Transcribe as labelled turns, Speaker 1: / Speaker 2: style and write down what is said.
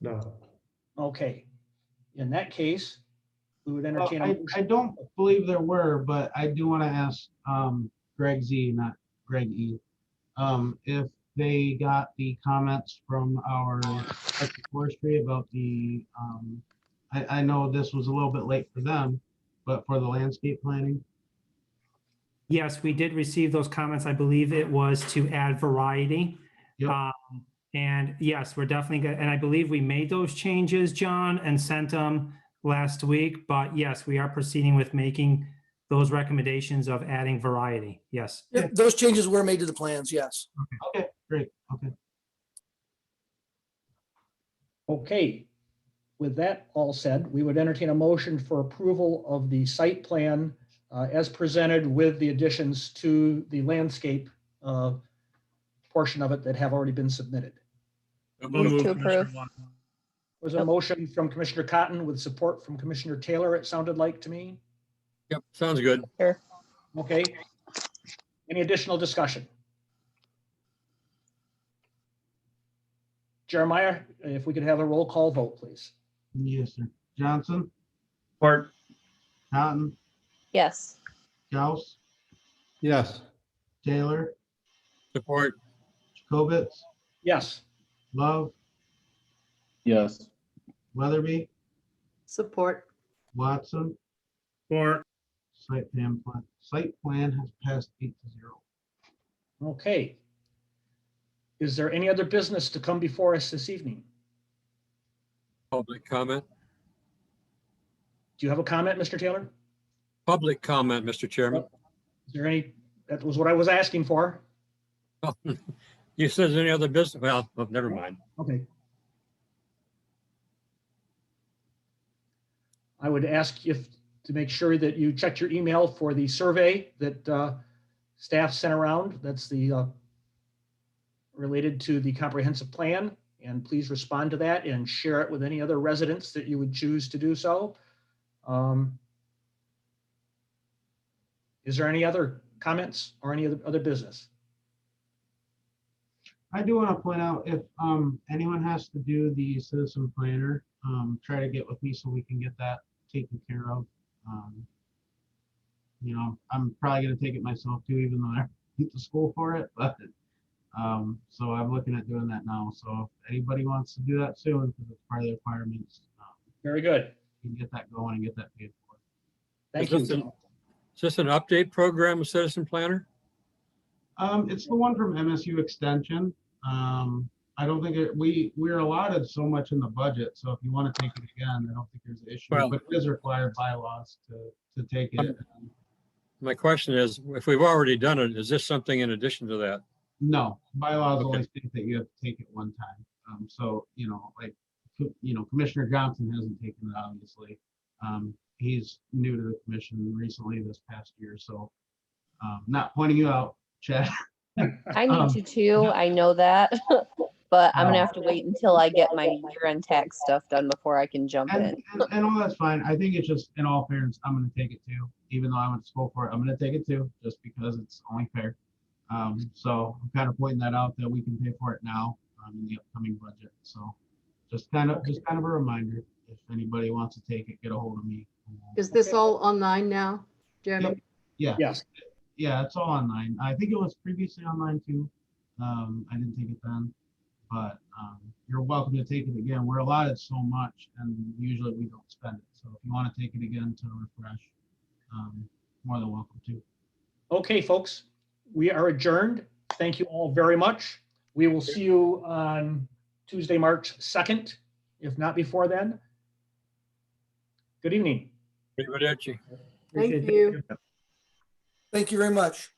Speaker 1: No.
Speaker 2: Okay. In that case, we would
Speaker 3: Well,
Speaker 2: entertain a
Speaker 3: I, I
Speaker 2: motion.
Speaker 3: don't believe there were, but I do want to ask, um, Greg Z, not Greg E. Um, if they got the comments from our Arctic forestry about the, um, I, I know this was a little bit late for them, but for the landscape planning,
Speaker 4: Yes, we did receive those comments. I believe it was to add variety.
Speaker 3: Yep.
Speaker 4: Um, And yes, we're definitely, go- and I believe we made those changes, John, and sent them last week. But yes, we are proceeding with making those recommendations of adding variety. Yes.
Speaker 5: Yeah, Those changes were made to the plans, yes.
Speaker 3: okay, great, okay.
Speaker 2: Okay. With that all said, we would entertain a motion for approval of the site plan uh, as presented with the additions to the landscape uh, portion of it that have already been submitted.
Speaker 6: Move to
Speaker 7: Commissioner
Speaker 6: approve.
Speaker 7: Watt.
Speaker 2: Was there a motion from Commissioner Cotton with support from Commissioner Taylor, it sounded like to me?
Speaker 6: Yep, sounds good.
Speaker 2: Okay. Any additional discussion? Jeremiah, if we could have a roll call vote, please.
Speaker 3: Yes, sir. Johnson,
Speaker 1: Part.
Speaker 3: Cotton,
Speaker 6: Yes.
Speaker 3: Gauss,
Speaker 1: Yes.
Speaker 3: Taylor,
Speaker 6: Support.
Speaker 3: Jacobitz,
Speaker 2: Yes,
Speaker 3: Love,
Speaker 8: Yes.
Speaker 3: Weatherby,
Speaker 9: Support.
Speaker 3: Watson,
Speaker 4: Or
Speaker 3: site plan, plan- site plan has passed eight to zero.
Speaker 2: okay. Is there any other business to come before us this evening?
Speaker 6: Public comment.
Speaker 2: Do you have a comment, Mr. Taylor?
Speaker 6: Public comment, Mr. Chairman.
Speaker 2: Is there any, that was what I was asking for.
Speaker 6: You says any other business? Well, oh, never mind.
Speaker 2: Okay. I would ask if, to make sure that you checked your email for the survey that uh, staff sent around. That's the uh, related to the comprehensive plan. And please respond to that and share it with any other residents that you would choose to do so. Um, Is there any other comments or any other other business?
Speaker 3: I do want to point out, if um, anyone has to do the citizen planner, um, try to get with me so we can get that taken care of. Um, You know, I'm probably gonna take it myself too, even though I went to school for it, but, um, so I'm looking at doing that now. So if anybody wants to do that soon, because it's part of the requirements, um,
Speaker 2: Very good.
Speaker 3: you can get that going and get that paid for.
Speaker 2: Thank
Speaker 6: Is this an-
Speaker 2: you.
Speaker 6: Is this an update program, Citizen Planner?
Speaker 3: Um, it's the one from MSU Extension. Um, I don't think it, we, we're allotted so much in the budget, so if you want to take it again, I don't think there's an issue,
Speaker 6: Well-
Speaker 3: but it is required by laws to, to take it.
Speaker 6: My question is, if we've already done it, is this something in addition to that?
Speaker 3: No, bylaws
Speaker 6: Okay.
Speaker 3: only state that you have to take it one time. Um, so, you know, like, co- you know, Commissioner Johnson hasn't taken it, obviously. Um, he's new to the commission recently this past year, so, um, not pointing you out, Chad.
Speaker 6: I
Speaker 3: Um,
Speaker 6: need you to, I know that, but I'm gonna have to wait until I get my year-end tax stuff done before I can jump
Speaker 3: And, and, and all that's fine. I think it's just, in all fairness, I'm gonna take it too, even though I went to school for it, I'm gonna take it too, just because it's only fair. Um, so I'm kind of pointing that out that we can pay for it now, um, in the upcoming budget, so. Just kind of, just kind of a reminder, if anybody wants to take it, get a hold of me.
Speaker 9: Is this all online now, Jeremy?
Speaker 3: Yeah,
Speaker 2: Yes,
Speaker 3: yeah, it's all online. I think it was previously online too. Um, I didn't take it then. But, um, you're welcome to take it again. We're allotted so much and usually we don't spend it. So if you want to take it again to refresh, um, more than welcome to.
Speaker 2: Okay, folks, we are adjourned. Thank you all very much. We will see you on Tuesday, March 2nd, if not before then. Good evening.
Speaker 6: in.
Speaker 9: Thank you.
Speaker 5: Thank you very much.